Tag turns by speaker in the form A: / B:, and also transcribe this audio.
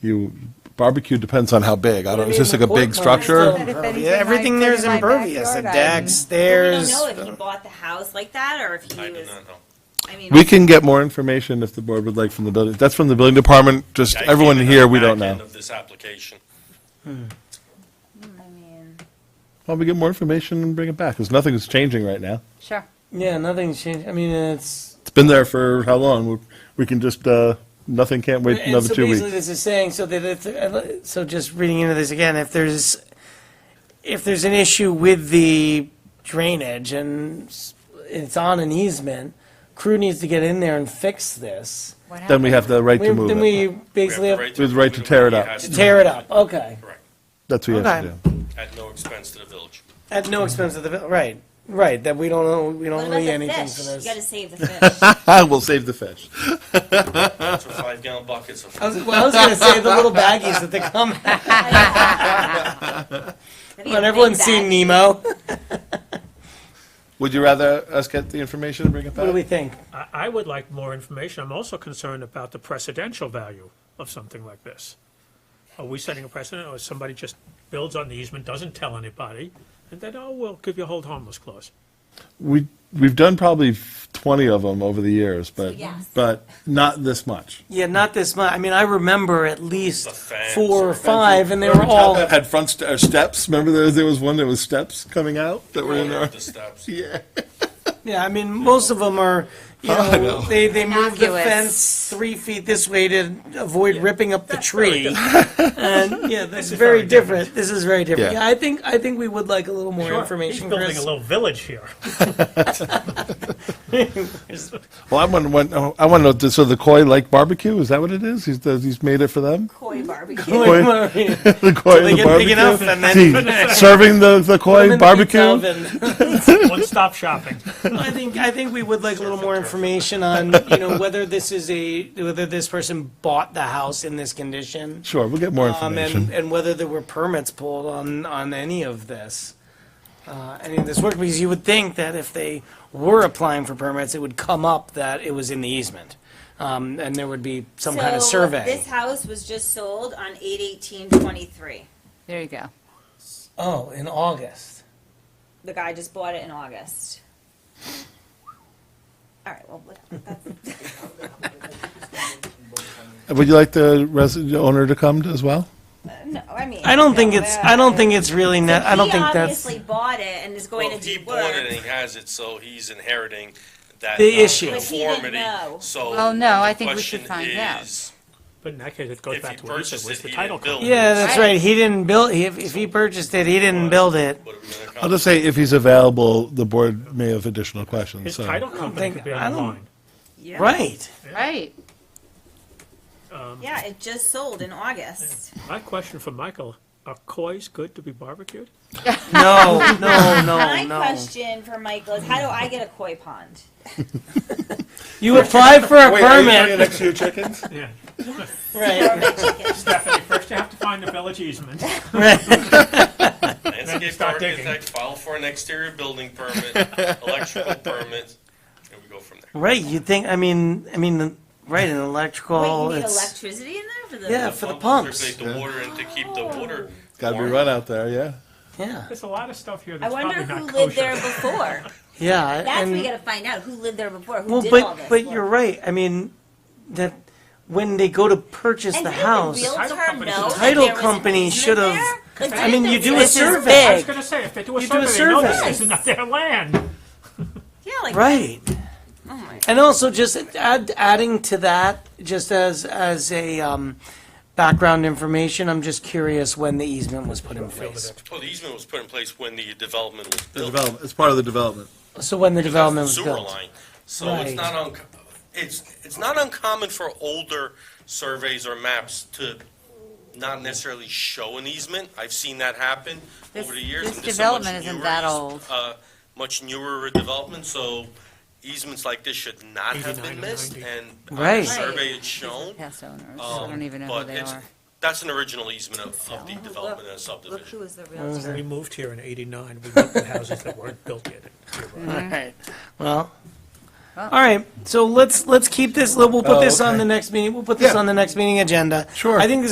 A: you, barbecue depends on how big. I don't, is this like a big
B: But
A: structure?
B: if anything,
C: Yeah, everything
B: I'd
C: there's
B: put in my
C: impervious, the
B: backyard,
C: deck,
D: don't
C: stairs.
D: know if he bought the house like that or if he
E: I do
D: was.
E: not know.
D: I mean,
A: We can get more information if the board would like from the building, that's from the building department, just
E: I
A: everyone
E: came in on
A: here,
E: the
A: we don't
E: back end
A: know.
E: Of this application.
B: I mean,
A: Well, we get more information and bring it back, because nothing's changing right now.
B: Sure.
C: Yeah, nothing's changed. I mean, it's.
A: It's been there for how long? We- We can just, uh, nothing can't wait
C: and
A: another
C: so
A: two
C: basically
A: weeks.
C: this is saying so that if, uh, so just reading into this again, if there's if there's an issue with the drainage and s- it's on an easement, crew needs to get in there and fix this.
B: What
A: Then we
B: happened?
A: have the right
C: We,
A: to move
C: then we
A: it.
C: basically have,
A: With right to tear it up.
C: to tear it up. Okay,
E: Correct,
A: That's what you have to
C: Okay.
A: do.
E: at no expense to the village.
C: at no expense to the vil- right, right. That we don't owe we
D: what
C: don't owe
D: about
C: you
D: the
C: anything
D: fish?
C: for
D: You
C: this.
D: gotta save the fish.
A: We'll save the fish.
E: That's what five gallon buckets
C: I
E: of.
C: was, well, I was gonna say the little baggies that they come. But everyone's seen Nemo.
A: Would you rather us get the information and bring it
C: What do we
A: back?
C: think?
F: I, I would like more information. I'm also concerned about the precedential value of something like this. Are we setting a precedent, or somebody just builds on the easement, doesn't tell anybody, and then, oh, we'll give you a hold harmless clause?
A: We, we've done probably twenty of them over the years, but,
D: yes.
A: but not this much.
C: Yeah, not this much. I mean, I remember at least
E: The fans
C: four
E: or
C: or five, and they were all.
A: That had front st- or steps, remember there, there was one that was steps coming out that were in there?
E: The steps.
A: Yeah.
C: Yeah, I mean, most of them are,
A: Oh,
C: you know, they, they move the
B: Innocuous.
C: fence three feet this way to avoid ripping up the
F: That's very
C: tree. And, yeah, that's very different. This is very different.
A: Yeah.
C: Yeah, I think, I think we would like a little more information,
F: He's building a
C: Chris.
F: little village here.
A: Well, I want, want- oh, I want to know, so the Koi Lake Barbecue, is that what it is? He's, does- he's made it for them?
D: Koi barbecue.
A: Koi-
C: Put
A: The Koi
C: they
A: and the
C: get big enough
A: barbecue?
C: and then-
A: See, Serving the, the
C: them
A: Koi
C: in the
A: barbecue?
C: oven.
F: One-stop shopping.
C: I think, I think we would like a little more information on, you know, whether this is a, whether this person bought the house in this condition.
A: Sure, we'll get more
C: Um, and,
A: information.
C: and whether there were permits pulled on, on any of this, uh, any of this work, because you would think that if they were applying for permits, it would come up that it was in the easement. Um, and there would be some kind of
D: So,
C: survey.
D: This house was just sold on eight eighteen twenty-three.
B: There you go.
C: Oh, in August.
D: The guy just bought it in August. All right, well, what- that's,
A: Would you like the res- the owner to come as well?
D: no, I mean.
C: I don't think
D: no,
C: it's, I don't think it's really, ne- I don't
D: he
C: think that's
D: obviously bought it and is going
E: Well,
D: to do
E: he bought it and
D: work.
E: he has it, so he's inheriting that.
C: The issue.
D: But he didn't
E: nonconformity,
D: know.
E: So.
B: Well, no, I
E: the
B: think we should
E: question
B: find out.
E: is,
F: But in that case, it goes
E: If he
F: back to what you said,
E: purchased
F: where's
E: it,
F: the
E: he
F: title
E: didn't build
F: company?
E: it.
C: Yeah, that's
B: Right.
C: right. He didn't build, if, if he purchased it, he didn't build it.
E: what are we gonna
A: I'll
E: accomplish?
A: just say, if he's available, the board may have additional questions,
F: His
A: so.
F: title company
C: think-
F: could be
C: I don't-
F: online.
D: Yeah.
C: Right.
B: Right.
D: Yeah, it just sold in August.
F: My question for Michael, are koi's good to be barbecued?
C: No, no, Oh, no,
D: My
C: no.
D: question for Michael is, how do I get a koi pond?
C: You apply for a permit.
A: next to your chickens?
F: Yeah.
D: Or
C: Right,
D: my chicken?
F: Stephanie, first you have to find the village easement.
C: right.
E: Landscape
F: start digging.
E: architect, file for an exterior building permit, electrical permit, and we go from there.
C: Right, you think, I mean, I mean, right, an electrical,
D: Wait, you need
C: Oh, it's,
D: electricity in there for the?
C: yeah, for the
E: Circulate
C: pumps,
E: the water and to keep the water.
A: Gotta be
E: warm.
A: run out there, yeah.
C: yeah,
F: There's a lot of stuff here
D: I
F: that's
D: wonder
F: probably not
D: who
F: kosher.
D: lived there before.
C: yeah.
D: That's what
C: and-
D: we gotta find out, who lived there before, who
C: Well,
D: did all
C: but,
D: this.
C: but
D: work.
C: you're right, I mean, that, when they go to purchase
D: And
C: the
D: didn't
C: house,
D: realtor
F: Title company-
D: know that
C: Title
D: there was an
C: company
D: easement
C: should've-
D: there? Like,
C: I mean,
D: didn't
C: you
D: the
C: do a
D: realtor-
C: survey.
F: I was gonna say, if they do a
C: You do a
F: survey, they know
C: survey.
F: this is not their land.
D: Yeah, like.
C: right.
D: Oh my
C: And also just add, adding to that, just as, as a, um, background information, I'm just curious when the easement was put in place.
E: Well, the easement was put in place when the development was
A: The
E: built.
A: development, it's part of the development.
C: So when the development was
E: Sewer
C: built.
E: line. So it's
C: Right.
E: not un, it's, it's not uncommon for older surveys or maps to not necessarily show an easement. I've seen that happen
B: This-
E: over the years.
B: this
E: and is a
B: development
E: much
B: isn't
E: newer
B: that
E: eas-
B: old.
E: Uh, much newer development, so easements like this should not have
F: 89
E: been
F: or
E: missed,
F: 90.
E: and on the
C: Right.
E: survey it's shown.
B: Past owners. I
E: Um,
B: don't even know who
E: but
B: they
E: it's-
B: are.
E: That's an original easement of, of the development and
D: Look
E: subdivision.
D: who was the realtor.
F: We moved here in eighty-nine, we looked at houses that weren't built yet.
C: Alright, well, alright, so let's, let's keep this, we'll put
A: Oh,
C: this on
A: okay.
C: the next meeting, we'll put this
A: Yeah.
C: on the next meeting agenda.
A: Sure.
C: I think